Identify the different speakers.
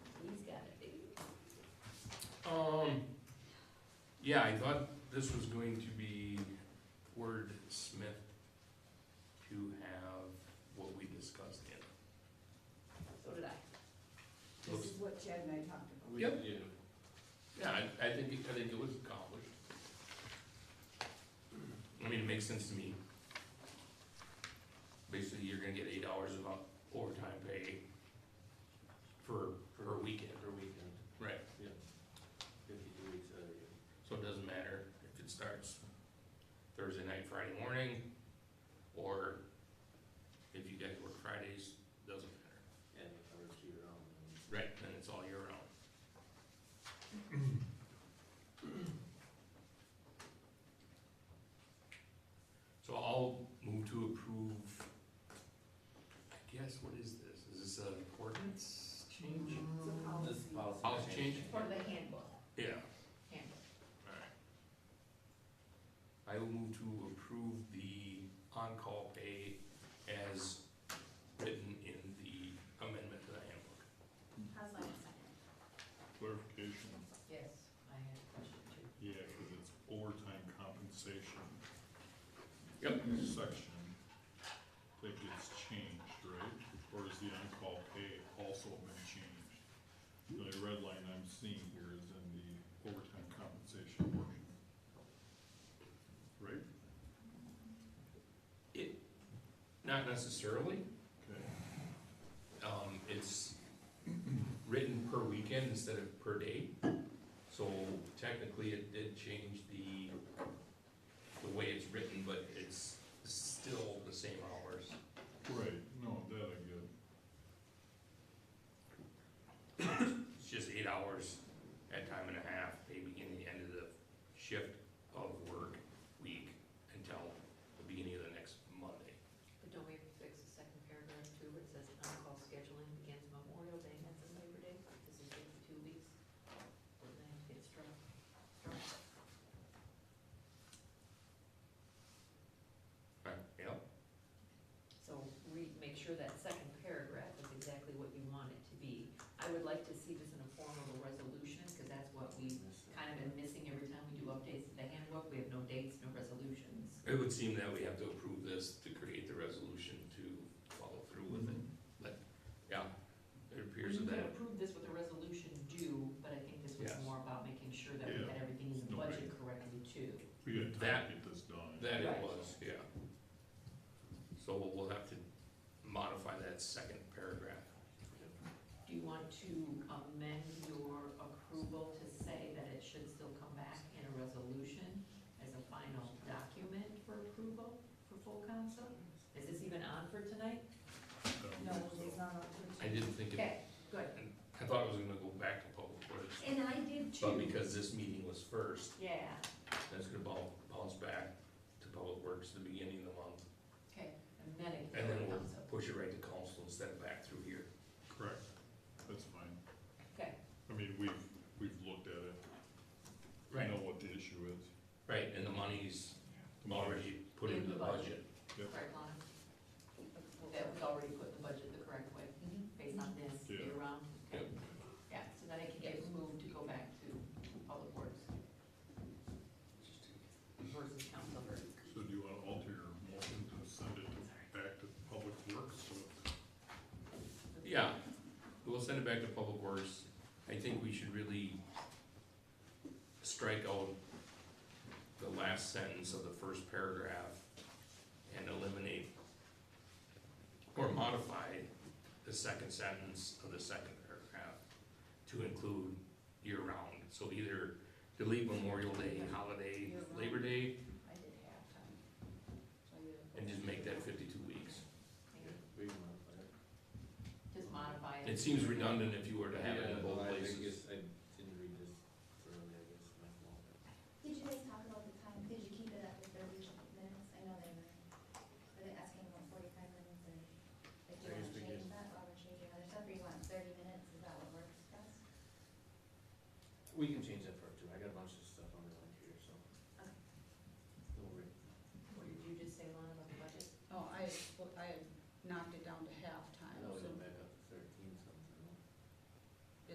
Speaker 1: Um, yeah, I thought this was going to be wordsmith to have what we discussed in.
Speaker 2: So did I.
Speaker 1: Looks-
Speaker 3: This is what Chad and I talked about.
Speaker 1: Yep.
Speaker 4: Yeah.
Speaker 1: Yeah, I, I think, it- I think it was accomplished. I mean, it makes sense to me. Basically, you're gonna get eight hours of overtime pay for, for a weekend.
Speaker 4: Per weekend,
Speaker 1: Right.
Speaker 4: fifty-two weeks out of year.
Speaker 1: So it doesn't matter if it starts Thursday night, Friday morning, or if you guys work Fridays, doesn't matter.
Speaker 4: and it covers year round. and-
Speaker 1: Right. Then it's all year round. So I'll move to approve, I guess, what is this? Is this an ordinance change?
Speaker 3: It's a
Speaker 4: Mm-hmm.
Speaker 3: policy.
Speaker 4: This is policy.
Speaker 1: Policy change?
Speaker 2: For the handbook,
Speaker 1: Yeah.
Speaker 2: handbook.
Speaker 1: Alright. I will move to approve the on-call pay as written in the amendment to the handbook.
Speaker 2: How's my second?
Speaker 5: Clarification,
Speaker 2: Yes, I had a question too.
Speaker 5: yeah, because it's overtime compensation.
Speaker 1: Yep.
Speaker 5: Section that gets changed, right? Or is the on-call pay also been changed? The only red line I'm seeing here is in the overtime compensation portion. Right?
Speaker 1: Not necessarily,
Speaker 5: Okay.
Speaker 1: um, it's written per weekend instead of per day. So technically, it did change the, the way it's written, but it's still the same hours.
Speaker 5: Right, no, that I get.
Speaker 1: It's just eight hours at time and a half, they begin the end of the shift of work week until the beginning of the next Monday.
Speaker 2: But don't we have to fix the second paragraph too, where it says on-call scheduling begins Memorial Day and ends on Labor Day? This is fifty-two weeks. Or then it gets struck. struck.
Speaker 1: Right, yep.
Speaker 2: So read, make sure that second paragraph is exactly what you want it to be. I would like to see this in a form of a resolution, because that's what we kind of been missing every time we do updates to the handbook. We have no dates, no resolutions.
Speaker 1: It would seem that we have to approve this to create the resolution to follow through with it. Yeah, it appears
Speaker 2: We could
Speaker 1: that,
Speaker 2: approve this with a resolution due, but I think this was
Speaker 1: Yes.
Speaker 2: more about making sure that we
Speaker 5: Yeah.
Speaker 2: had everything in the
Speaker 5: No
Speaker 2: budget correctly too.
Speaker 5: We had time
Speaker 1: That-
Speaker 5: to get this done.
Speaker 1: that it
Speaker 2: Right.
Speaker 1: was, yeah. So we'll have to modify that second paragraph.
Speaker 2: Do you want to amend your approval to say that it should still come back in a resolution as a final document for approval for full council? Is this even on for tonight?
Speaker 5: Um,
Speaker 3: No,
Speaker 5: so-
Speaker 3: it's not up to.
Speaker 1: I didn't think, it-
Speaker 2: Okay, good.
Speaker 1: I thought it was gonna go back to public works,
Speaker 2: And I did
Speaker 1: but
Speaker 2: too.
Speaker 1: because this meeting was first,
Speaker 2: Yeah,
Speaker 1: That's gonna bounce, bounce back to Public Works at the beginning of the month,
Speaker 2: okay, and then it
Speaker 1: and then
Speaker 2: can
Speaker 1: we'll
Speaker 2: come up.
Speaker 1: push it right to council instead of back through here.
Speaker 5: Correct, that's fine.
Speaker 2: Okay,
Speaker 5: I mean, we've, we've looked at it, We know what the issue is.
Speaker 1: Right, and the money's
Speaker 5: Tomorrow.
Speaker 1: already put into the budget.
Speaker 2: correct, Lana? That was already put in the budget the correct way, based on this
Speaker 5: Yeah.
Speaker 2: year round?
Speaker 1: Yep.
Speaker 2: Yeah, so then it can get moved to go back to public works versus council work.
Speaker 5: So do you wanna alter your motion to send it back to Public Works, so
Speaker 1: Yeah, we'll send it back to Public Works. I think we should really strike out the last sentence of the first paragraph and eliminate or modify the second sentence of the second paragraph to include year-round. So either delete Memorial Day, holiday, Labor Day,
Speaker 2: I did half time.
Speaker 1: and just make that fifty-two weeks.
Speaker 4: We can modify it.
Speaker 2: Just modify it.
Speaker 1: It seems redundant if you were to have it in
Speaker 4: Yeah,
Speaker 1: both
Speaker 4: I
Speaker 1: places.
Speaker 4: guess I didn't read this thoroughly, I guess, my fault.
Speaker 6: Did you guys talk about the time, did you keep it up with their weekly minutes? I know they were, were they asking about forty-five minutes or if
Speaker 4: I
Speaker 6: you wanna
Speaker 4: guess we
Speaker 6: change
Speaker 4: could-
Speaker 6: that, or change your other stuff, or you want thirty minutes, is that what works best?
Speaker 4: We can change that